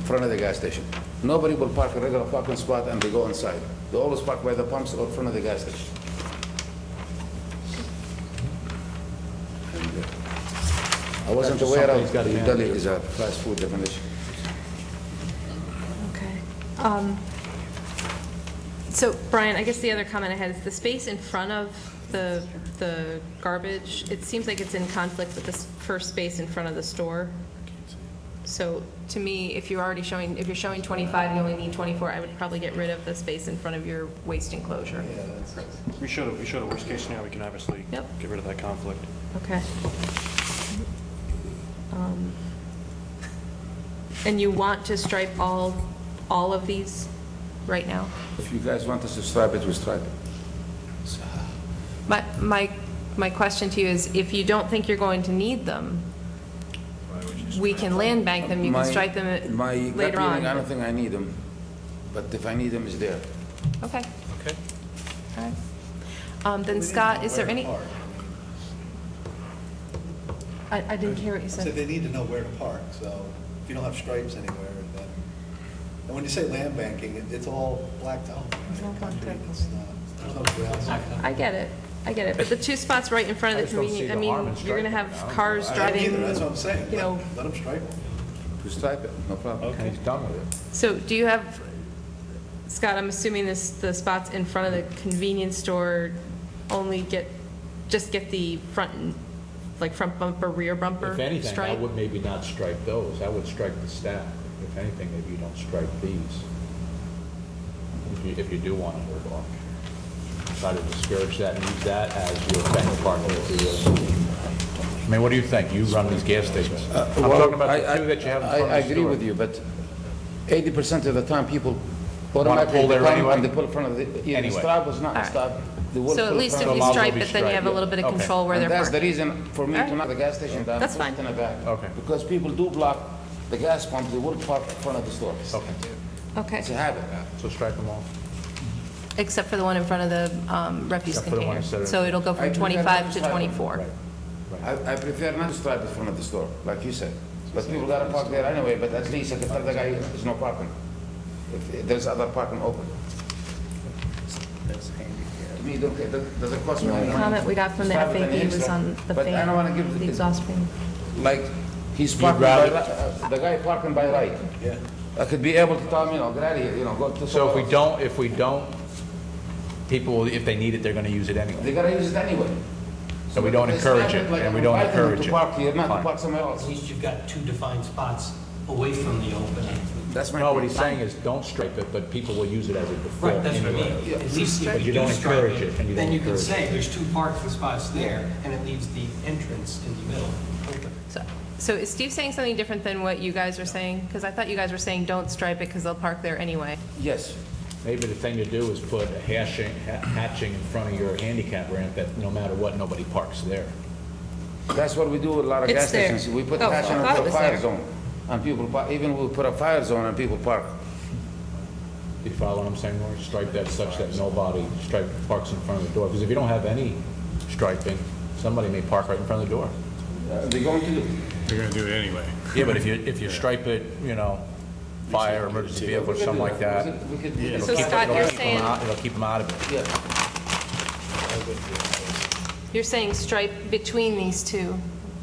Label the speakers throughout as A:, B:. A: front of the gas station. Nobody will park a regular parking spot and they go inside. They always park by the pumps or front of the gas station. And, uh, I wasn't
B: That's just
A: aware of
B: something he's gotta
A: Italy is a fast food definition.
C: Okay. Um, So Brian, I guess the other comment I had is the space in front of the, the garbage, it seems like it's in conflict with this first space in front of the store. So to me, if you're already showing, if you're showing 25, you only need 24, I would probably get rid of the space in front of your waste enclosure.
D: We should have, we should have, worst case scenario, we can obviously
C: Yep.
D: get rid of that conflict.
C: Okay. Um, And you want to stripe all, all of these right now?
A: If you guys want us to stripe it, we stripe it.
C: My, my, my question to you is, if you don't think you're going to need them, we can land bank them, you
A: My-
C: can strike them at-
A: My gut
C: later
A: feeling, I
C: on.
A: don't think I need them, but if I need them, it's there.
C: Okay,
E: Okay.
C: all right. Um, then Scott, is there any? I, I didn't hear what you
F: So
C: said.
F: they need to know where to park, so if you don't have stripes anywhere, then, and when you say land banking, it- it's all blacked out.
C: It's all blacked out.
F: It's not- There's no grass.
C: I get it, I get it, but the two spots right in front of the convenience, I mean, you're gonna have cars
F: I don't
C: driving,
F: either, that's what I'm saying.
C: you know.
F: Let them stripe them.
A: We stripe it, no problem.
B: Okay, he's done with it.
C: So do you have, Scott, I'm assuming this, the spots in front of the convenience store only get, just get the front, and- like front bumper, rear bumper
B: If anything, I
C: stripe?
B: would maybe not strike those, I would strike the staff. If anything, maybe you don't strike these, if you, if you do want to move on. Try to discourage that and use that as your bench partner for your- I mean, what do you think? You run these gas stations. I'm talking about the two that you have in front of the store.
A: I agree with you, but 80% of the time, people
B: pull
A: automatically
B: there
A: come
B: anyway?
A: and they pull in front of the, either
B: Anyway.
A: stop or not
C: Alright.
A: stop. they will
C: So
A: pull
C: at
A: in
C: least
A: front
C: if
A: of
C: you
A: the-
B: Allow
C: stripe
B: them to
C: it, then you
B: be
C: have a little bit of
B: striped, yeah.
C: control where
A: And
C: they're
A: That's the
C: parked.
A: reason for me to
C: Alright.
A: not the gas station, that
C: That's
A: I'm
C: fine.
A: in the back.
B: Okay.
A: Because people do block the gas pump, they will park in front of the store.
B: Okay,
C: Okay,
A: It's a habit.
B: so strike them all.
C: except for the one in front of the um, refuse
B: Except for the one
C: container.
B: instead of-
C: So it'll go
A: I
C: from
A: prefer
C: 25
A: not
C: to
A: to stripe them.
C: 24.
A: I I prefer not to stripe in front of the store, like you said. But people gotta park there anyway, but at least I can tell the guy, there's no parking. If- If there's other parking open. To me, don't- it doesn't cost me
C: The
A: any
C: only
A: money.
C: comment we got from the
A: Stripe it any
C: FAQ was
A: extra.
C: on the
A: But I don't wanna give
C: fan, the exhaust fan.
A: like, he's parking by,
B: rather-
A: ri- uh, the guy parking by right. Yeah. I could be able to tell him, you know, get out of here, you know, go to.
B: So if we
A: somewhere
B: don't, if we don't, people, will- if they need it, they're going to use it
A: else.
B: anyway.
A: They gotta use it anyway.
B: So we don't
A: They
B: encourage
A: stand
B: it,
A: like
B: and we
A: I'm
B: don't
A: inviting them
B: encourage
A: To
B: it.
A: park here, not to
B: Fine.
A: park somewhere else.
E: At least you've got two defined spots away from the open.
A: That's my
B: No, what
A: point.
B: he's saying is, don't stripe it, but people will use it as a default
E: Right, that's what I
B: anyway.
E: mean. At least
B: But
E: if
B: you
E: you
B: don't
E: do stripe
B: encourage it, and you
E: it, then
B: don't
E: you can
B: encourage
E: say, there's two parking spots there, and it leaves the entrance in the middle open.
C: So- So is Steve saying something different than what you guys were saying? Because I thought you guys were saying, don't stripe it because they'll park there anyway.
A: Yes.
B: Maybe the thing to do is put a hashing, ha- hatching in front of your handicap ramp that no matter what, nobody parks there.
A: That's what we do with a lot of
C: It's
A: gas
C: there.
A: stations. We put
C: Oh,
A: cash
C: I
A: on
C: thought it
A: a
C: was
A: fire
C: there.
A: zone. And people, par- even we put a fire zone and people park.
B: Do you follow what I'm saying, Lori? Stripe that such that nobody stripe parks in front of the door, because if you don't have any striping, somebody may park right in front of the door.
A: Uh, They're going to do.
G: They're gonna do it anyway.
B: Yeah, but if you, if you stripe it, you know, fire, emergency vehicle, or something like that, it'll
A: We could, we could-
C: So
B: keep,
C: Scott,
B: it'll
C: you're
B: keep them
C: saying-
B: out, it'll keep them out of it.
A: yeah.
C: You're saying stripe between these two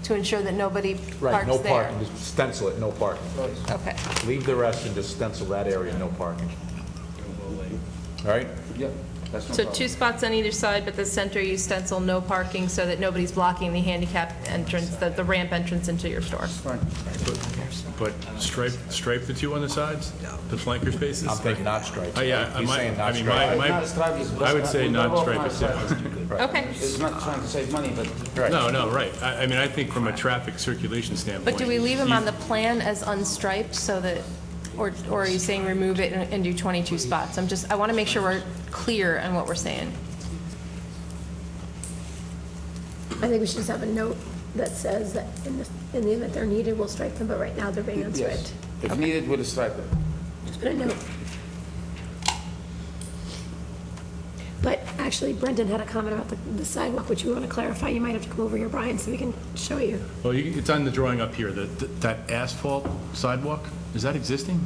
C: to ensure that nobody
B: Right,
C: parks
B: no
C: there?
B: parking, just stencil it, no parking.
C: Okay,
B: Leave the rest and just stencil that area, no parking. All right?
A: Yeah, that's no
C: so
A: problem.
C: two spots on either side, but the center you stencil no parking so that nobody's blocking the handicap entrance, the the ramp entrance into your store.
G: But stripe, stripe the two on the sides? The flanker spaces?
B: I'm thinking not stripe.
G: Oh, yeah, I
B: He's
G: might-
B: saying
G: I
B: not
G: mean,
B: stripe.
G: my-
A: It's not stripe, it's-
G: I would say
A: we
G: not
A: don't
G: stripe it,
A: stripe it.
C: Okay,
A: It's not trying to save money, but
G: No, no, right. I, I mean, I think from a traffic circulation standpoint.
C: but do we leave them on the plan as unstriped so that, or or are you saying remove it and and do 22 spots? I'm just, I want to make sure we're clear on what we're saying.
H: I think we should just have a note that says that in the, in the event they're needed, we'll strike them, but right now they're being
A: yes.
H: unstriped.
A: If needed, we'll stripe it.
H: Just put a note. But actually Brendan had a comment about the the sidewalk, which we want to clarify. You might have to come over here, Brian, so we can show you.
G: Well, you- it's on the drawing up here, that, that asphalt sidewalk, is that existing?